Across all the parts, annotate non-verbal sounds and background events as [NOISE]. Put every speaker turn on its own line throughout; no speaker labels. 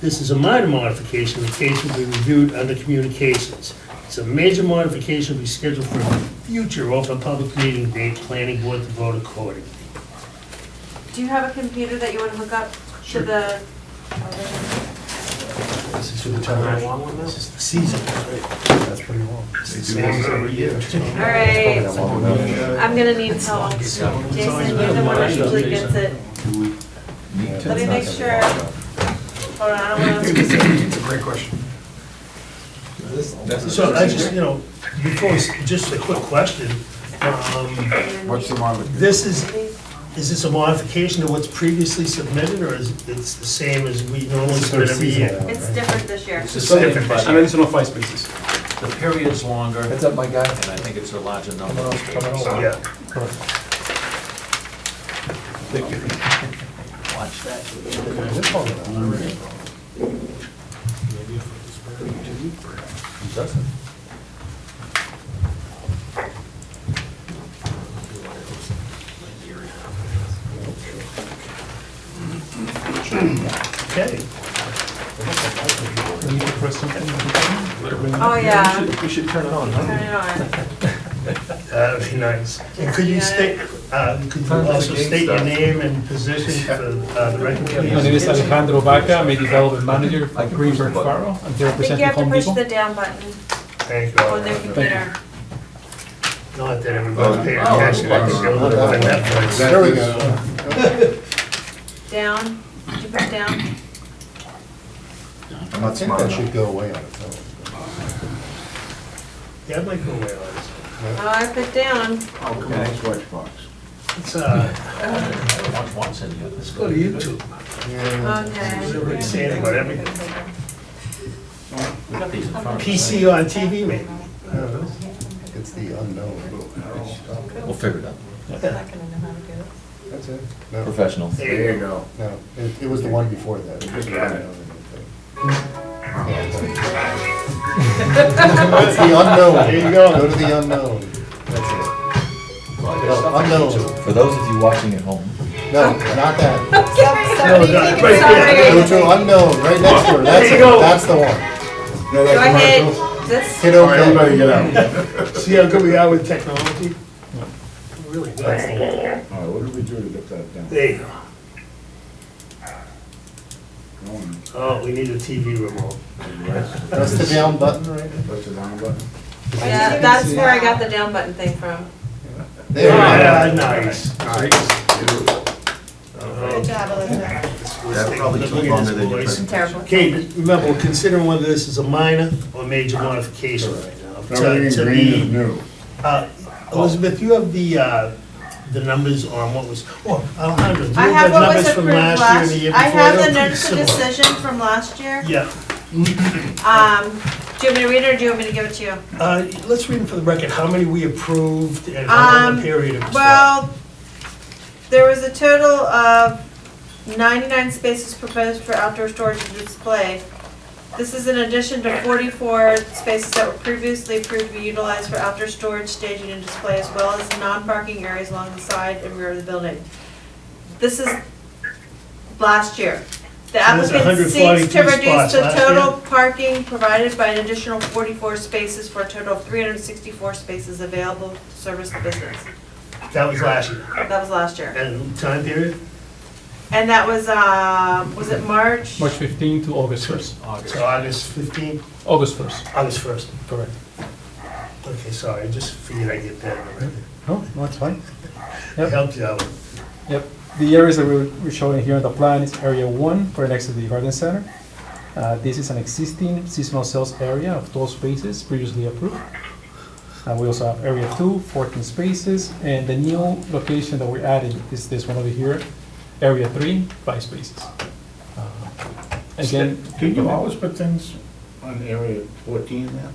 This is a minor modification, the case will be reviewed under communications. It's a major modification, will be scheduled for a future open public meeting date, planning board to vote accordingly.
Do you have a computer that you want to hook up to the?
This is for
Should we turn that long one now?
This is the season.
That's pretty long.
This is
They do this every
[LAUGHS]
year.
All
Probably
right,
that long enough.
I'm gonna need help. Jason, you're the one who usually gets it.
Do we need to?
Let me make sure. Hold on, I
[LAUGHS]
don't want to.
It's a great question. That's-
So I just, you know, before, we s- just a quick question. Um,
What's the modification?
This is, is this a modification to what's previously submitted, or is it the same as we normally submit every year?
It's different this year.
It's the same, but
An additional five spaces.
the period's longer, and
Heads up, my guy.
I think it's a larger number.
Coming on, coming on.
So,
Yeah.
Watch that.
It's long enough.
Doesn't.
Okay.
Oh, yeah,
We should turn it on, huh?
turn it on.
That'd be nice. And could you state, uh, could you also state your name and position for uh, the record,
My name is
please?
Alejandro Vaca, I'm a development manager at Greenberg Faro. I'm here
I think you
representing
have to
Home
push
Depot.
the down button
Thank
on their
you.
computer.
Not that everybody paid attention, I think they're looking at Netflix.
There we go.
Down, did you put down?
I'm not
I think
smart
that
enough.
should go away on its own.
Yeah, I might go away on this.
Oh, I put down.
Oh, come on, Xbox.
It's, uh,
I don't want once in here. Let's
go to YouTube. They're already
Okay.
saying about everything.
We got these in front of us.
PC on TV, maybe. I don't know.
It's the unknown.
We'll figure it out.
That's it. No,
Professionals.
There you go.
no, it, it was the one before that. It was the
Got it.
unknown, I think. It's the unknown. There you go. Go to the unknown. That's it. No, unknown.
For those of you watching at home,
No, not that.
No, that- right there.
Go to unknown, right next to her. That's
There
it.
you go.
That's the one.
Go
No, that's
ahead,
commercial.
this,
Hit
All right,
okay.
everybody get out.
See how good we are with technology? Really good.
All right, what did we do to get that down?
There you go.
Go on.
Oh, we need a TV remote.
Press the down button right there.
Press the down button.
yeah, that's where I got the down button thing from.
There you go.
Ah, nice. Good job,
that probably took longer than you
I'm
anticipated.
terrible.
Okay, but remember, we're considering whether this is a minor or major modification right now. To
Everything
to
in green is
the-
new.
uh, Elizabeth, you have the, uh, the numbers on what was, oh, Alejandro, do you
I have
have the
what was
numbers from
approved
last year and
last,
the year
I
before?
have the
They're
notice of
pretty similar.
decision from last year.
Yeah,
Um, do you want me to read it or do you want me to give it to you?
uh, let's read them for the record, how many we approved and how long
Um,
a period it was for.
Well, there was a total of ninety-nine spaces proposed for outdoor storage and display. This is in addition to forty-four spaces that were previously approved to be utilized for outdoor storage, staging, and display, as well as non-parking areas along the side and rear of the building. This is last year.
So
The
that's
applicant seeks to
142
reduce
spots
the
last
total parking provided by an additional forty-four spaces for a total of three hundred and sixty-four spaces available to service the business.
That was last year.
That was last year.
And time period?
And that was, uh, was it March?
March 15 to August 1st.
So August 15th,
August 1st.
August 1st.
Correct.
Okay, sorry, I just figured I'd get that already.
No, no, it's Oh, fine.
I
Yep.
helped you out.
Yep. The areas that we're we're showing here on the plan is Area 1, right next to the garden center. Uh, This is an existing seasonal sales area of 12 spaces previously approved. Uh, We also have Area 2, 14 spaces, and the new location that we're adding is this one over here, Area 3, 5 spaces. Uh, Again.
Can you always put things on area fourteen there?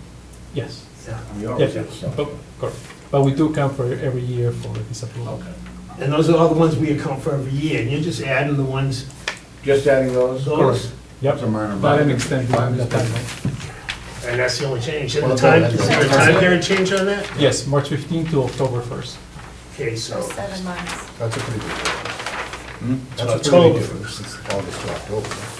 Yes.
Yeah. Oh.
We
Yes,
always have
yes,
something.
but, correct. But we do come for every year for this approval.
Okay.
And those are all the ones we account for every year, and you're just adding the ones,
Just adding those?
those?
Yep,
That's a minor
not an
modification.
extended one, that timeline.
And that's the only change. And the
Well,
time,
that's-
is there a time period change on that?
Yes, March 15 to October 1st.
Okay, so,
Seven months.
That's a pretty good one.
Hmm?
That's a pretty
October.
good one. This is August to October.